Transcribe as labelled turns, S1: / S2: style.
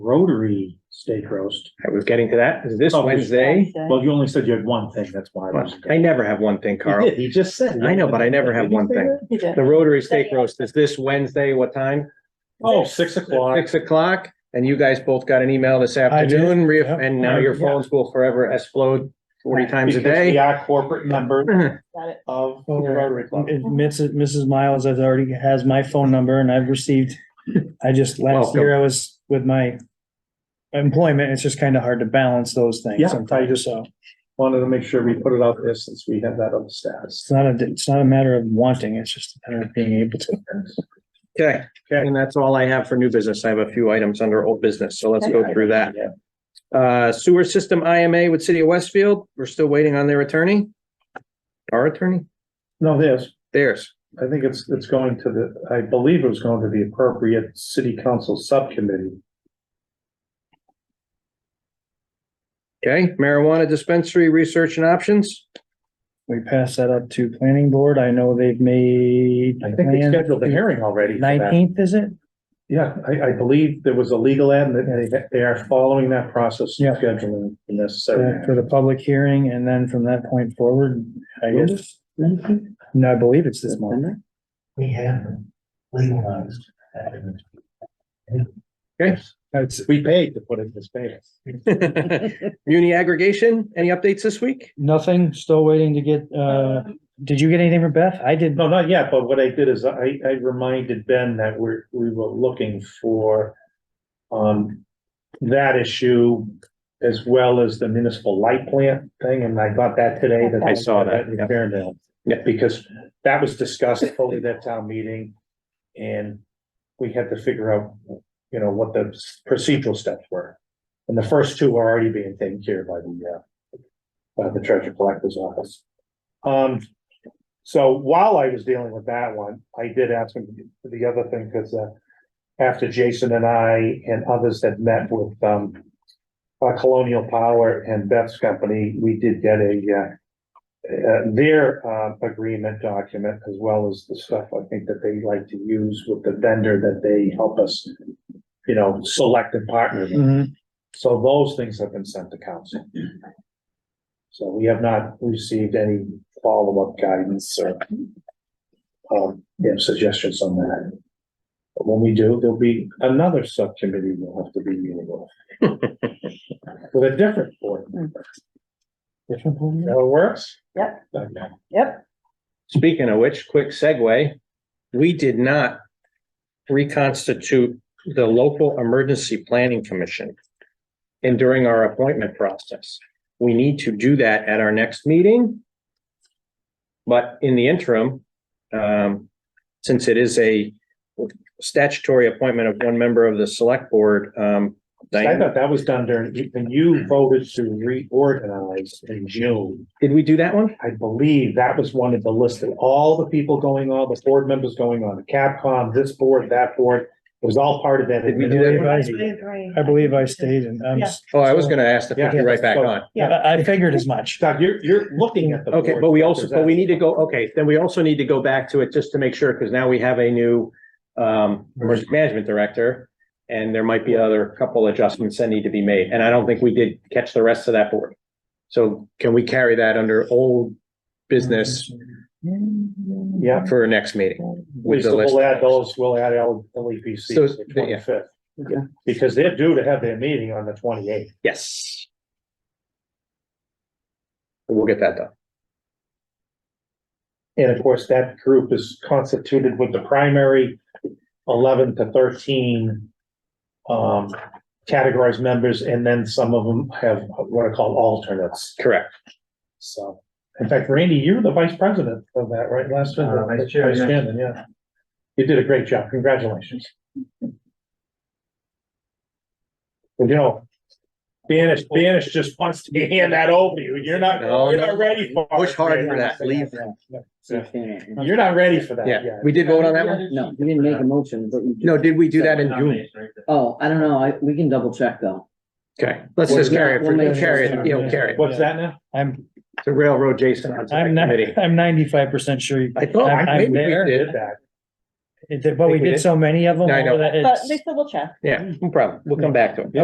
S1: Rotary steak roast.
S2: I was getting to that. Is this
S1: Oh, we-
S2: Wednesday?
S1: Well, you only said you had one thing, that's why. I was-
S2: I never have one thing,
S1: He
S2: Carl.
S1: did, he just said.
S2: I know, but I never have
S1: Did he
S2: one
S1: say
S2: thing.
S1: that?
S3: He did.
S2: The Rotary Steak Roast is this Wednesday, what time?
S1: Oh, six o'clock.
S2: Six o'clock, and you guys both got an email this afternoon, re-
S4: yep.
S2: and now your
S1: Yeah.
S2: phones will forever explode forty times a
S1: Because We
S2: day.
S1: are corporate members
S3: Got it.
S1: of the
S4: Oh,
S1: Rotary Club.
S4: It- Mrs. Mrs. Miles has already has my phone number and I've received, I just, last
S2: Welcome.
S4: year I was with my employment, it's just kind of hard to balance those
S1: Yeah, I
S4: things sometimes, so
S1: Wanted to make sure we put it out there since we have that other status.
S4: it's not a, it's not a matter of wanting, it's just a matter of being able to.
S2: Okay,
S1: Okay.
S2: and that's all I have for new business. I have a few items under old business, so let's go through that.
S1: Yeah.
S2: Uh, sewer system IMA with City of Westfield, we're still waiting on their attorney. Our attorney,
S1: No, there's,
S2: theirs.
S1: I think it's, it's going to the, I believe it was going to the appropriate city council subcommittee.
S2: Okay, marijuana dispensary research and options.
S4: We pass that up to planning board, I know they've made.
S1: I think they scheduled the hearing already. for that.
S4: Nineteenth, is it?
S1: Yeah, I, I believe there was a legal ad and they, they are following that process,
S4: Yeah.
S1: scheduling the
S4: For for
S1: necessary.
S4: the public hearing, and then from that point forward, I guess,
S1: We
S4: no, I believe it's this month.
S1: have legalized.
S2: Okay.
S1: We paid to put it in this paper.
S2: Muni aggregation, any updates this week?
S4: Nothing, still waiting to get, uh, did you get anything from Beth? I did,
S1: No, not yet, but what I did is I, I reminded Ben that we're, we were looking for um, that issue as well as the municipal light plant thing, and I got that today. that
S3: I
S2: saw that,
S1: in
S2: yeah.
S1: Fairfield.
S2: Yeah.
S1: Because that was discussed fully at that town meeting, and we had to figure out, you know, what the procedural steps were. And the first two are already being taken care of by the, uh, by the treasure collector's office. Um, so while I was dealing with that one, I did ask him the other thing, because uh. After Jason and I and others had met with um. Uh, Colonial Power and Beth's company, we did get a uh. Uh, their uh agreement document as well as the stuff I think that they like to use with the vendor that they help us. You know, select and partner with.
S2: Mm-hmm.
S4: Mhm.
S1: So those things have been sent to council. So we have not received any follow-up guidance or um, you know, suggestions on that. But when we do, there'll be another subcommittee we'll have to be meeting with. With a different board. member.
S4: Different board member?
S1: That works?
S3: Yep.
S1: Okay.
S3: Yep.
S2: Speaking of which, quick segue, we did not reconstitute the local emergency planning commission. And during our appointment process, we need to do that at our next meeting. But in the interim, um, since it is a statutory appointment of one member of the select board, um.
S1: I
S2: Diane,
S1: thought that was done during, when you voted to reorganize in June.
S2: did we do that one?
S1: I believe that was one of the list of all the people going on, the board members going on, the Capcom, this board, that board. It was all part of that.
S2: Did we do that?
S4: I I believe I stayed and I'm, s-
S2: Oh, I was gonna ask to put you right back on.
S4: I I figured as much.
S1: Doug, you're, you're looking at the.
S2: Okay,
S1: board.
S2: but we also, but we need to go, okay, then we also need to go back to it just to make sure, because now we have a new um, emergency management director. And there might be other couple adjustments that need to be made, and I don't think we did catch the rest of that board. So can we carry that under old business
S1: Yeah,
S2: for our next meeting?
S1: we
S2: with the
S1: still
S2: list?
S1: will add those, we'll add L, E LEPC
S2: So,
S1: to the
S2: yeah.
S1: twenty-fifth. Because they're due to have their meeting on the twenty-eighth.
S2: Yes. We'll get that done.
S1: And of course, that group is constituted with the primary eleven to thirteen um, categorized members, and then some of them have what are called alternates.
S2: Correct.
S1: So, in fact, Randy, you were the vice president of that, right, last time?
S5: Uh, vice chair, yeah.
S1: chairman, yeah. You did a great job. Congratulations. You know, Banish, Banish just wants to hand that over to you. You're not,
S2: No,
S1: you're
S2: no.
S1: not ready for. it,
S2: Push hard for
S1: Banish.
S2: that, leave.
S1: You're not ready for that
S2: Yeah,
S1: yet.
S2: we did vote on that one?
S5: No.
S6: No, you didn't make a motion, but you.
S2: No, did we do that in June?
S6: Oh, I don't know, I, we can double check though.
S2: Okay, let's just carry it, for-
S6: We'll make-
S2: carry it, you know, carry it.
S1: What's that now?
S4: I'm,
S2: to railroad Jason onto that
S4: I'm not,
S2: committee.
S4: I'm ninety-five percent sure. you-
S2: I thought,
S4: I'm- I'm
S2: maybe we
S4: there.
S2: did.
S1: Did that.
S7: It did- But we
S2: Think we
S7: did
S2: did.
S7: so many of them.
S2: I know.
S7: that
S4: but
S7: it's-
S4: they still will check.
S2: Yeah, no problem. We'll come back to it.